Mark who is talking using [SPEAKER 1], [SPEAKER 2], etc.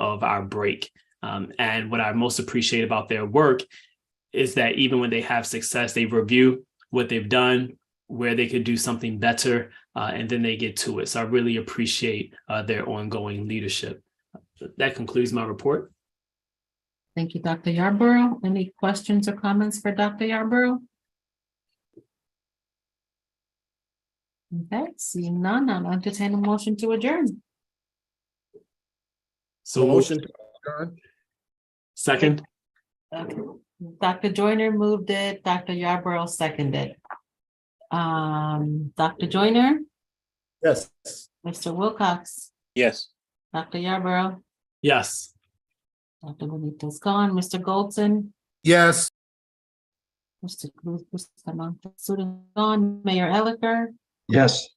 [SPEAKER 1] of our break. Um, and what I most appreciate about their work is that even when they have success, they review what they've done, where they could do something better, uh, and then they get to it. So I really appreciate uh, their ongoing leadership. That concludes my report.
[SPEAKER 2] Thank you, Dr. Yarborough. Any questions or comments for Dr. Yarborough? Okay, seeing none, I'll entertain a motion to adjourn.
[SPEAKER 1] So
[SPEAKER 3] Motion to adjourn?
[SPEAKER 1] Second,
[SPEAKER 2] Dr. Joyner moved it, Dr. Yarborough seconded. Um, Dr. Joyner,
[SPEAKER 3] Yes.
[SPEAKER 2] Mr. Wilcox,
[SPEAKER 3] Yes.
[SPEAKER 2] Dr. Yarborough,
[SPEAKER 1] yes.
[SPEAKER 2] Dr. Bonito's gone, Mr. Goldson,
[SPEAKER 3] Yes.
[SPEAKER 2] Mr. Cruz, Mr. Montezuma, gone, Mayor Elicker,
[SPEAKER 3] Yes.